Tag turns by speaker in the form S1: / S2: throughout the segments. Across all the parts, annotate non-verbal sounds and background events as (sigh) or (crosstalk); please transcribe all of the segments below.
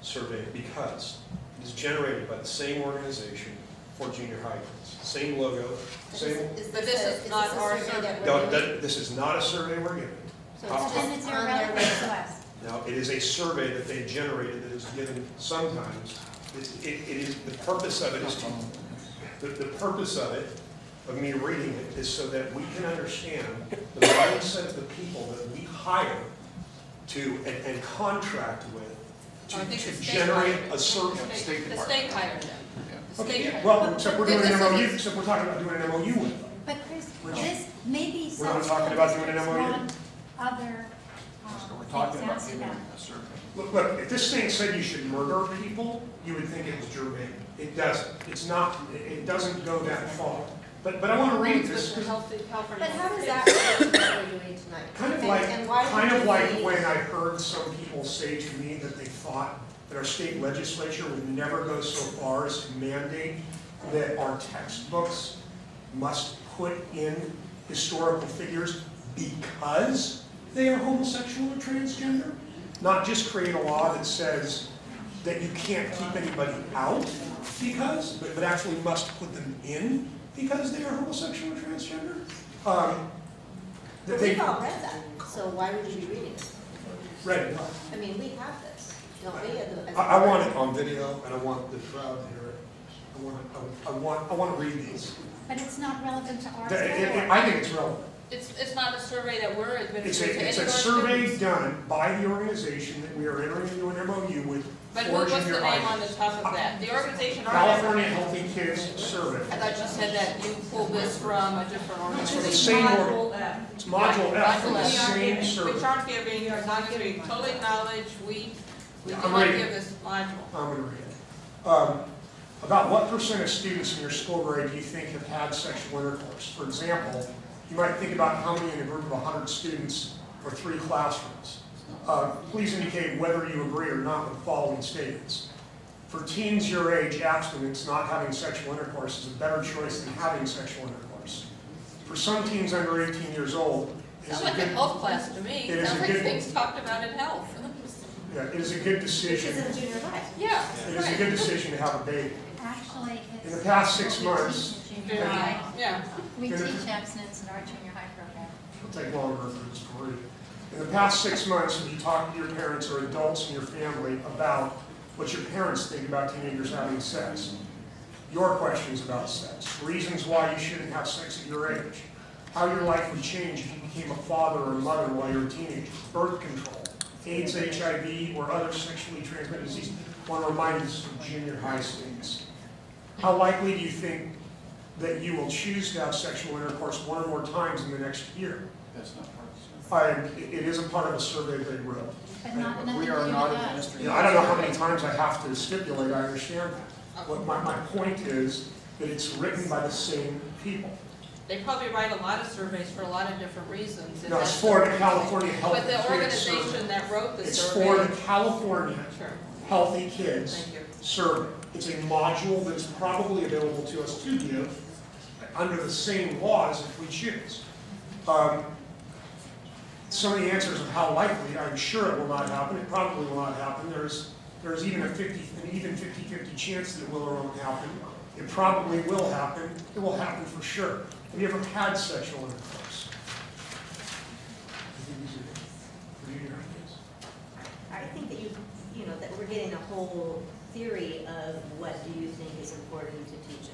S1: survey because it is generated by the same organization for junior high, same logo, same,
S2: But this is not our survey.
S1: no, that- this is not a survey we're giving.
S2: it's
S1: Uh-huh.
S3: Then
S2: just
S3: it's
S2: on their
S3: irrelevant to us.
S1: Now, it is a survey that they generated that is given sometimes. It, it it is, the purpose of it is to, the, the purpose of it, of me reading it, is so that we can understand the mindset of the people that we hire to, and, and contract with
S2: I
S1: to,
S2: think the
S1: to
S2: state
S1: generate
S2: hired
S1: a survey.
S2: The
S4: State
S2: state- the state
S4: department.
S2: hired them. The state
S1: Okay,
S2: hired
S1: well,
S2: them.
S1: except we're doing
S2: This
S1: an
S2: is-
S1: MOU, except we're talking about doing an MOU with them.
S3: But Chris,
S1: Which-
S3: this may be
S1: We're not
S3: something
S1: talking about doing an
S3: that's
S1: MOU.
S3: on other,
S4: So
S3: um,
S4: we're talking about
S3: things
S4: giving
S3: out
S4: them a survey.
S1: Look, look, if this thing said you should murder people, you would think it was germane. It doesn't. It's not, it- it doesn't go that far. But, but I want to read this,
S2: With the healthy- healthy-
S5: But how does that relate to what we're doing tonight?
S1: kind of
S5: And-
S1: like,
S5: and why
S1: kind
S5: would
S1: of
S5: we
S1: like
S5: need-
S1: when I heard some people say to me that they thought that our state legislature would never go so far as to mandate that our textbooks must put in historical figures because they are homosexual or transgender? Not just create a law that says that you can't keep anybody out because, but, but actually must put them in because they are homosexual or transgender? Um, that
S5: But
S1: they-
S5: we've all read that, so why would you be reading it?
S1: Right.
S5: I mean, we have this, don't we? as a- as a-
S1: I, I want it on video, and I want the crowd to hear it. I want, it- I want, I want to read these.
S3: but it's not relevant to our
S1: That- it- it-
S3: survey.
S1: I think it's relevant.
S2: It's, it's not a survey that we're administering
S1: It's
S2: to any
S1: a,
S2: of
S1: it's a
S2: our
S1: survey
S2: students.
S1: done by the organization that we are entering into an MOU with
S2: But
S1: for
S2: who- what's the
S1: junior
S2: name on
S1: high.
S2: the top of that? The organization. or
S1: California
S2: whatever.
S1: Healthy Kids Survey.
S2: I thought you said that you pulled this from a different
S1: It's from the
S2: organization.
S1: same, org- it's module F from
S2: Module
S1: the
S2: F.
S1: same
S2: Which
S1: survey.
S2: aren't giving, you not giving total acknowledge, we, we
S1: I'm
S2: do not
S1: reading.
S2: give this module.
S1: I'm going to read it. Um, About what percent of students in your school grade do you think have had sexual intercourse? For example, you might think about how many in a group of 100 students or three classrooms. Uh, Please indicate whether you agree or not with the following statements. For teens your age, abstinence, not having sexual intercourse is a better choice than having sexual intercourse. For some teens under 18 years old, it's
S2: Sounds
S1: a
S2: like a
S1: good,
S2: health class to me,
S1: It is
S2: sounds
S1: a
S2: like
S1: good-
S2: things talked about in health. (laughs)
S1: yeah, it is a good decision,
S5: Because of junior high.
S2: Yeah,
S1: it is a
S2: right.
S1: good decision to have a baby.
S3: Actually,
S1: In the
S3: it's,
S1: past six months,
S3: we teach at junior high.
S2: Yeah,
S3: We
S1: in the-
S3: teach abstinence in our junior high program.
S1: It'll take longer for this to read. In the past six months, have you talked to your parents or adults in your family about what your parents think about teenagers having sex? Your questions about sex, reasons why you shouldn't have sex at your age, how your life would change if you became a father or mother while you were a teenager, birth control, AIDS, HIV, or other sexually transmitted disease. I want to remind us of junior high students. How likely do you think that you will choose to have sexual intercourse one or more times in the next year?
S4: That's not part of
S1: I, it is a part of a survey they wrote.
S3: But not, nothing
S4: the survey.
S3: to
S4: We
S3: do
S4: are
S3: with
S4: not
S3: us.
S4: administering.
S1: You know, I don't know how many times I have to stipulate, I understand that. What my, my point is, that it's written by the same people.
S2: they probably write a lot of surveys for a lot of different reasons. and
S1: Now, it's
S2: that's-
S1: for the California Healthy
S2: But
S1: Kids
S2: the
S1: Survey.
S2: organization that wrote the
S1: It's for
S2: survey.
S1: the California
S2: Sure,
S1: Healthy Kids
S2: thank you.
S1: Survey. It's a module that's probably available to us to give under the same laws if we choose. Um, Some of the answers of how likely, I'm sure it will not happen, it probably will not happen. There's, there's even a 50, an even 50/50 chance that it will or won't happen. It probably will happen, it will happen for sure. Have you ever had sexual intercourse? I think these are- for you, your ideas.
S5: I think that you, you know, that we're getting a whole theory of what do you think is important to teach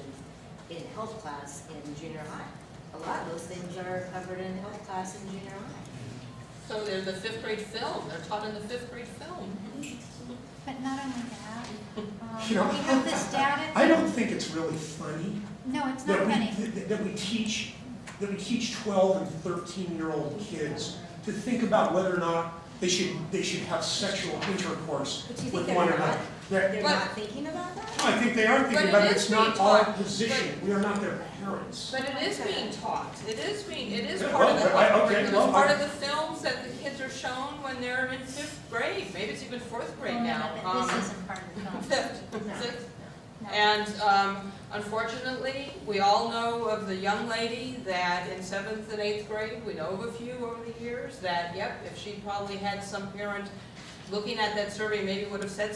S5: in, in health class in junior high. A lot of those things are covered in health class in junior high.
S2: So they're the fifth grade film, they're taught in the fifth grade film.
S3: But not only that, um,
S1: You know,
S3: we have this data.
S1: (laughs) I don't think it's really funny
S3: No, it's not
S1: that we,
S3: funny.
S1: that- that we teach, that we teach twelve and thirteen-year-old kids to think about whether or not they should, they should have sexual intercourse
S5: But do you
S1: with
S5: think they're
S1: one
S5: not?
S1: another. That-
S5: They're
S2: But-
S5: not thinking about that?
S1: I think they are
S2: But
S1: thinking
S2: it
S1: about it,
S2: is
S1: it's not
S2: being
S1: our
S2: taught.
S1: position, we are not their parents.
S2: But it is being taught, it is being, it is
S1: Yeah,
S2: part of
S1: well,
S2: the
S1: I-
S2: health
S1: okay,
S2: curriculum,
S1: well,
S2: it's part
S1: I-
S2: of the films that the kids are shown when they're in fifth grade, maybe it's even fourth grade
S3: Oh, no,
S2: now.
S3: but
S2: um,
S3: This isn't part of the
S2: (laughs)
S3: film.
S2: Fifth,
S5: No.
S2: sixth,
S3: No.
S2: And um, unfortunately, we all know of the young lady that in seventh and eighth grade, we know of a few over the years, that, yep, if she probably had some parent looking at that survey, maybe would have said